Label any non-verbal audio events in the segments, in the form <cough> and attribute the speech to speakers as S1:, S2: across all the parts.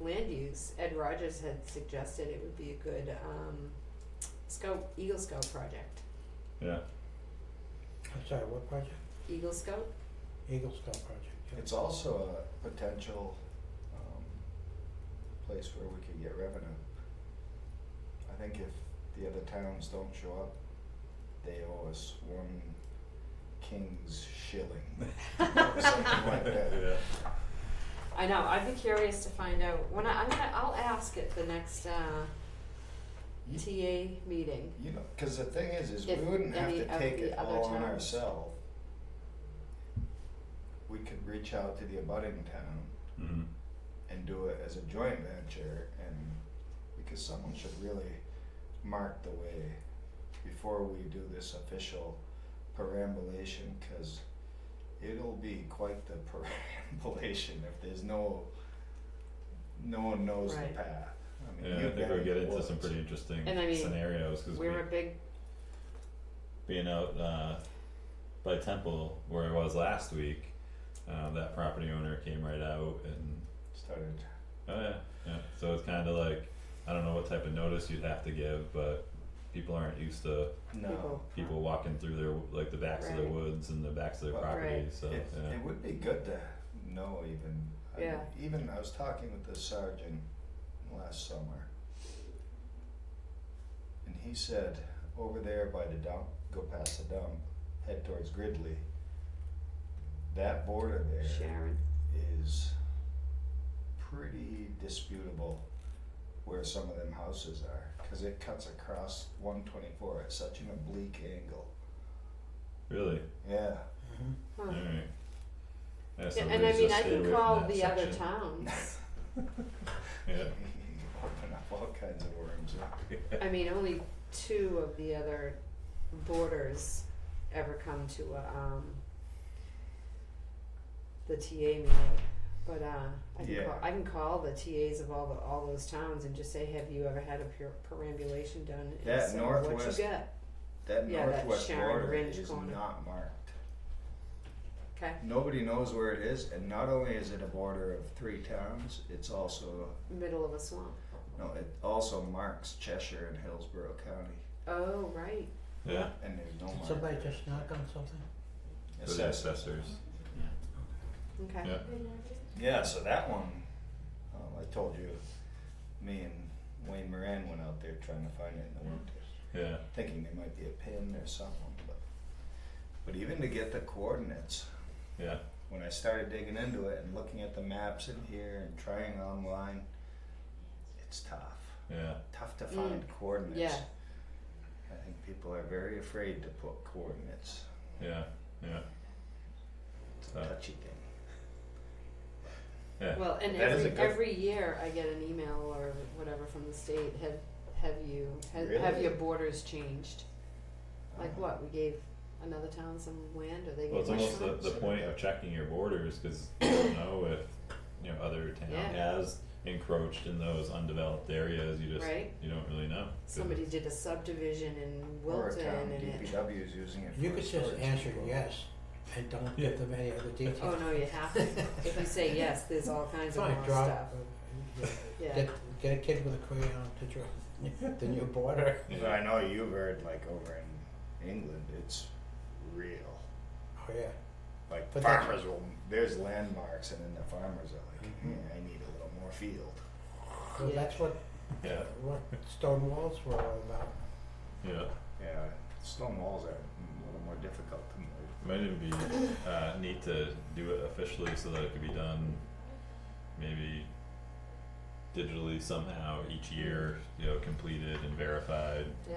S1: land use, Ed Rogers had suggested it would be a good um scout, Eagle Scout project.
S2: yeah.
S3: I'm sorry, what project?
S1: Eagle Scout?
S3: Eagle Scout project. yeah.
S4: It's also a potential um, place where we could get revenue. I think if the other towns don't show up, they owe us one king's
S2: <laughs>
S4: shilling. <laughs> Something like that.
S2: Yeah.
S1: I know, I'd be curious to find out, when I, I'm gonna, I'll ask at the next uh
S4: You-
S1: TA meeting.
S4: You know, because the thing is, is
S1: If
S4: we wouldn't have
S1: any
S4: to
S1: of
S4: take
S1: the
S4: it
S1: other
S4: all on
S1: towns-
S4: ourselves. We could reach out to the abutting town
S2: Mm-hmm.
S4: and do it as a joint venture and because someone should really mark the way before we do this official perambulation because it'll be quite the <laughs> perambulation if there's no no one knows
S1: Right.
S4: the path. I mean,
S2: Yeah,
S4: you
S2: I think
S4: gotta
S2: we'll get into
S4: woods.
S2: some pretty interesting
S1: And I mean,
S2: scenarios because we
S1: We're a big,
S2: being out uh, by Temple where I was last week, uh, that property owner came right out and
S4: started.
S2: oh yeah, yeah. So it's kind of like I don't know what type of notice you'd have to give, but people aren't used to
S4: No,
S1: People.
S2: people walking through their like the backs of their
S1: Right.
S2: woods and the backs of their
S4: Right.
S2: properties. So
S4: it,
S2: yeah.
S4: it would be good to know even. I mean,
S1: Yeah.
S4: even I was talking with the sergeant last summer, and he said over there by the dump, go past the dump, head towards Gridley. That border there is
S1: Sharon,
S4: pretty disputable where some of them houses are because it cuts across 124 at such an oblique angle.
S2: Really,
S4: Yeah.
S3: Mhm.
S1: huh.
S2: all right. Yeah, so
S1: Yeah, and I
S2: please
S1: mean,
S2: just
S1: I
S2: stay away
S1: can
S2: from
S1: call
S2: that
S1: the other
S2: section.
S1: towns.
S2: <laughs> Yeah.
S4: <laughs> Open up all kinds of worms.
S1: I mean, only two of the other borders ever come to a, um, the TA meeting. But uh, I can
S4: Yeah.
S1: call, I can call the TAs of all the all those towns and just say, have you ever had a per- perambulation done? And
S4: That
S1: so What you
S4: Northwest-
S1: get?
S4: That
S1: Yeah, that
S4: northwest
S1: Sharon
S4: border
S1: Ridge
S4: is
S1: corner.
S4: not marked.
S1: Okay.
S4: Nobody knows where it is, and not only is it a border of three towns, it's also
S1: Middle of a swamp.
S4: no, it also marks Cheshire and Hillsborough County,
S1: Oh right.
S2: Yeah.
S4: and there's no.
S3: Did
S4: mark.
S3: somebody just knock on something?
S2: For the assessors.
S1: Okay.
S2: Yeah.
S4: Yeah, so that one, um, I told you, me and Wayne Moran went out there trying to find it in the winter.
S2: Yeah.
S4: thinking there might be a pin or something, but but even to get the coordinates.
S2: Yeah.
S4: When I started digging into it and looking at the maps in here and trying online, it's tough.
S2: Yeah.
S4: Tough to
S1: Mm,
S4: find coordinates.
S1: yeah.
S4: I think people are very afraid to put coordinates.
S2: Yeah. Yeah.
S4: It's
S2: Uh,
S4: a touchy thing.
S2: Yeah.
S1: Well, and
S4: That is
S1: every
S4: a good-
S1: every year I get an email or whatever from the state. Have have you have, have
S4: Really?
S1: your borders changed? Like
S4: Uh,
S1: what, we gave another town some land or they
S2: Well,
S1: gave
S2: it's
S1: us
S2: almost
S1: some?
S2: the, the point of checking your borders, cause you don't know if, you know, other town
S1: Yeah.
S2: has encroached in those undeveloped areas, you just,
S1: Right.
S2: you don't really know. 'Cause
S1: Somebody did a subdivision in
S4: Or a
S1: Wilton
S4: town,
S1: and it,
S4: DPW is using it for
S3: You could
S4: a
S3: just
S4: storage
S3: answer
S4: depot.
S3: yes and don't
S2: Yeah.
S3: give them any
S1: <laughs>
S3: other details.
S1: oh no, you have to, if you say
S3: <laughs>
S1: yes, there's all kinds of
S3: Fine,
S1: more
S3: draw-
S1: stuff,
S3: uh, <laughs>
S1: yeah.
S3: Get, get a kid with a crayon to draw the new border.
S2: Yeah.
S4: But I know you've heard like over in England, it's real.
S3: Oh, yeah.
S4: Like
S3: But that-
S4: farmers will, there's landmarks, and then the farmers are like,
S3: Mhm.
S4: "Yeah, I need a little more field.
S3: Well,
S1: Yeah.
S3: that's what,
S2: Yeah,
S3: what stone walls were all about.
S2: yeah,
S4: Yeah, stone walls are a little more difficult to move.
S2: might even be, <laughs> uh, neat to do it officially so that it could be done maybe digitally somehow each year, you know, completed and verified,
S1: yeah,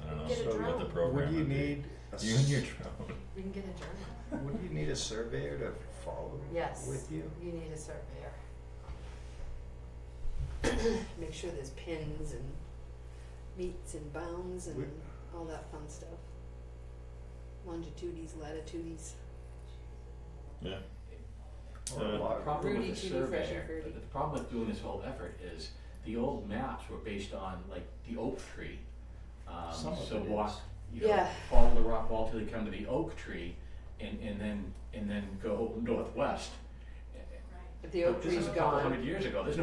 S2: I don't know,
S1: Get a
S2: what the
S1: drone.
S2: program
S4: Would you
S2: would be.
S4: need a
S2: You and your
S4: s-
S2: drone,
S1: we can get a journal,
S4: Would you need a surveyor to follow
S1: Yes.
S4: with you?
S1: you need a surveyor. <coughs> Make sure there's pins and meets and bounds and
S4: We-
S1: all that fun stuff. Longitudes, latitudes,
S2: yeah,
S4: Or a
S2: Uh,
S5: The
S4: log?
S5: problem
S1: Rudy
S5: with the
S1: Tooty, Fresh
S5: survey,
S1: and Fruity.
S5: the problem with doing this whole effort is the old maps were based on like the oak tree. Um,
S4: Some of
S5: so
S4: it
S5: walk,
S4: is.
S5: you know,
S1: Yeah.
S5: follow the rock wall till you come to the oak tree and, and then, and then go northwest.
S1: the oak
S5: But this
S1: tree's
S5: is a couple
S1: gone.
S5: hundred years ago, there's no